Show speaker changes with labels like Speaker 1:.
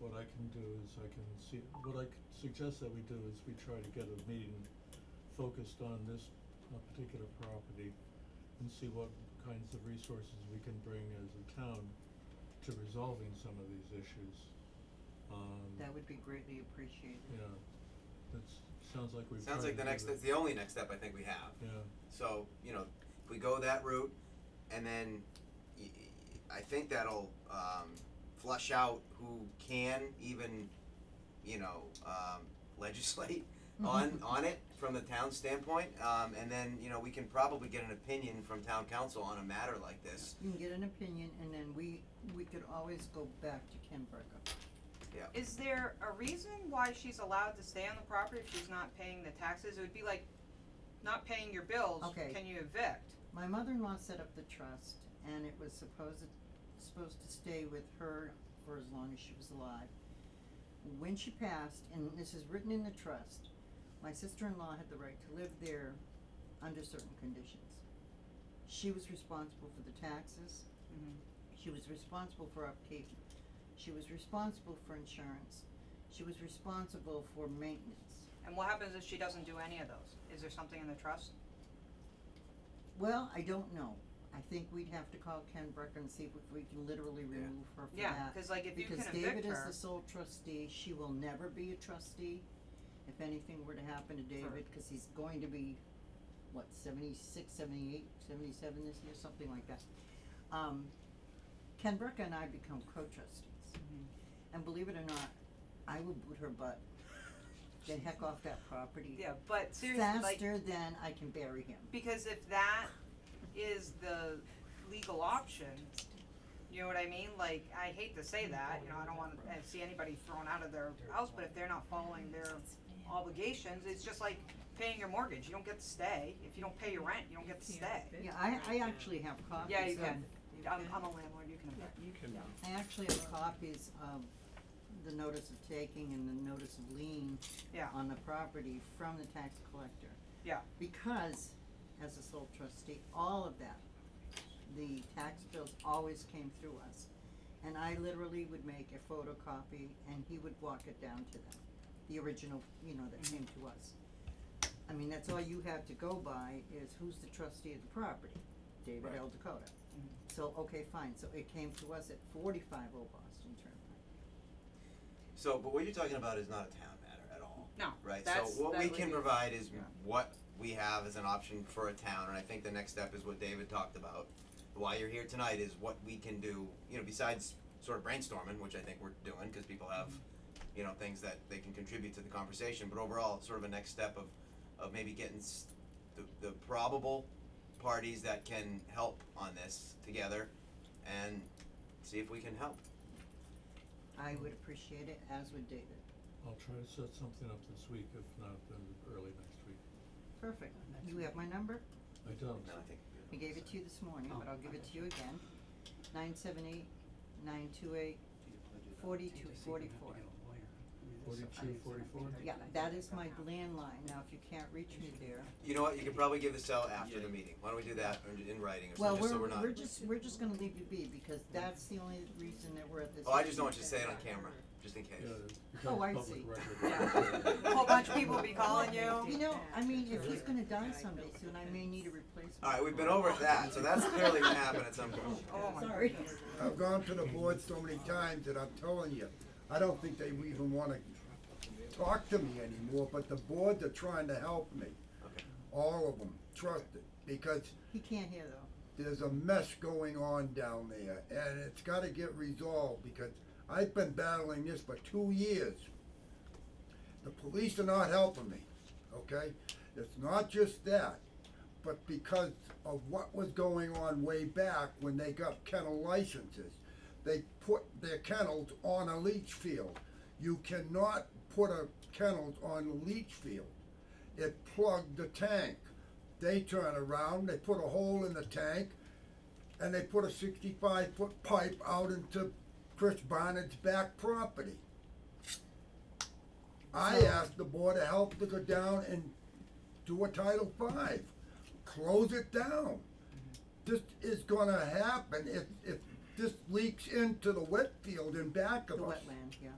Speaker 1: what I can do is I can see, what I could suggest that we do is we try to get a meeting focused on this uh, particular property and see what kinds of resources we can bring as a town to resolving some of these issues. Um,
Speaker 2: That would be greatly appreciated.
Speaker 1: yeah, that's, sounds like we've tried to do it.
Speaker 3: Sounds like the next, that's the only next step I think we have.
Speaker 1: Yeah,
Speaker 3: So, you know, if we go that route, and then y- y- I think that'll um, flush out who can even, you know, um, legislate on on it from the town standpoint, um, and then you know we can probably get an opinion from town council on a matter like this.
Speaker 2: You can get an opinion and then we, we could always go back to Ken Burka.
Speaker 4: Is there a reason why she's allowed to stay on the property if she's not paying the taxes? It would be like not paying your bills,
Speaker 2: Okay.
Speaker 4: can you evict?
Speaker 2: My mother-in-law set up the trust and it was supposed, supposed to stay with her for as long as she was alive. When she passed, and this is written in the trust, my sister-in-law had the right to live there under certain conditions. She was responsible for the taxes, She was responsible for upkeep. She was responsible for insurance. She was responsible for maintenance.
Speaker 4: And what happens if she doesn't do any of those? Is there something in the trust?
Speaker 2: Well, I don't know. I think we'd have to call Ken Brecker and see if we can literally
Speaker 3: Yeah.
Speaker 2: remove her from
Speaker 4: Yeah,
Speaker 2: that.
Speaker 4: cause like if you can
Speaker 2: Because
Speaker 4: evict her.
Speaker 2: David is the sole trustee, she will never be a trustee. If anything were to happen to David, cause he's going to be, what, 76, 78, 77 this year, something like that. Um, Ken Brecker and I become co-trustees.
Speaker 4: Mm-hmm.
Speaker 2: And believe it or not, I will boot her butt the heck off that property.
Speaker 4: Yeah, but seriously, like,
Speaker 2: Faster than I can bury him.
Speaker 4: because if that is the legal option, you know what I mean? Like, I hate to say that, you know, I don't wanna uh, see anybody thrown out of their house, but if they're not following their obligations, it's just like paying your mortgage, you don't get to stay. If you don't pay your rent, you don't get to stay.
Speaker 2: Yeah, I, I actually have copies of.
Speaker 4: Yeah, you can,
Speaker 5: You
Speaker 4: I'm,
Speaker 5: can.
Speaker 4: I'm a landlord, you can evict.
Speaker 5: You can,
Speaker 2: I actually have copies of the notice of taking and the notice of lien
Speaker 4: Yeah.
Speaker 2: on the property from the tax collector.
Speaker 4: Yeah.
Speaker 2: Because, as a sole trustee, all of that, the tax bills always came through us. And I literally would make a photocopy and he would walk it down to them, the original, you know, that
Speaker 4: Mm-hmm.
Speaker 2: came to us. I mean, that's all you have to go by is who's the trustee of the property, David L. Dakota. So, okay, fine, so it came to us at forty-five Old Boston Turnpike.
Speaker 3: So, but what you're talking about is not a town matter at all.
Speaker 4: No,
Speaker 3: Right, so
Speaker 4: that's-
Speaker 3: what
Speaker 4: that
Speaker 3: we
Speaker 4: would
Speaker 3: can
Speaker 4: be-
Speaker 3: provide is
Speaker 4: yeah.
Speaker 3: what we have as an option for a town, and I think the next step is what David talked about. Why you're here tonight is what we can do, you know, besides sort of brainstorming, which I think we're doing, cause people have, you know, things that they can contribute to the conversation, but overall, it's sort of a next step of, of maybe getting s- the, the probable parties that can help on this together, and see if we can help.
Speaker 2: I would appreciate it, as would David.
Speaker 1: I'll try to set something up this week, if not, then early next week.
Speaker 2: Perfect, you have my number,
Speaker 1: I don't,
Speaker 3: No, I think.
Speaker 2: I gave it to you this morning, but I'll give it to you again, nine seven eight, nine two eight, forty-two forty-four.
Speaker 1: forty-two, forty-four?
Speaker 2: Yeah, that is my landline, now if you can't reach me there,
Speaker 3: You know what, you could probably give this out after the meeting, why don't we do that in, in writing or
Speaker 2: well,
Speaker 3: something, just
Speaker 2: we're,
Speaker 3: so we're not.
Speaker 2: we're just, we're just gonna leave you be, because that's the only reason that we're at this.
Speaker 3: Oh, I just
Speaker 2: meeting.
Speaker 3: don't want you to say it on camera, just in case.
Speaker 1: Yeah, it
Speaker 2: Oh, I
Speaker 1: becomes
Speaker 2: see.
Speaker 1: public record.
Speaker 4: A whole bunch of people will be calling you.
Speaker 2: You know, I mean, if he's gonna die someday soon, I may need a replacement.
Speaker 3: Alright, we've been over that, so that's clearly gonna happen at some point.
Speaker 4: Oh my
Speaker 2: Sorry.
Speaker 6: I've gone to the board so many times that I'm telling you, I don't think they even wanna talk to me anymore, but the boards are trying to help me.
Speaker 3: Okay.
Speaker 6: All of them, trust it, because
Speaker 2: He can't hear though.
Speaker 6: there's a mess going on down there, and it's gotta get resolved, because I've been battling this for two years. The police are not helping me, okay? It's not just that, but because of what was going on way back when they got kennel licenses. They put their kennels on a leach field. You cannot put a kennels on a leach field. It plugged the tank. They turn around, they put a hole in the tank, and they put a sixty-five foot pipe out into Chris Barnard's back property. I asked the board to help to go down and do a Title Five, close it down. This is gonna happen if, if this leaks into the wet field in back
Speaker 2: The
Speaker 6: of us.
Speaker 2: wetland, yeah.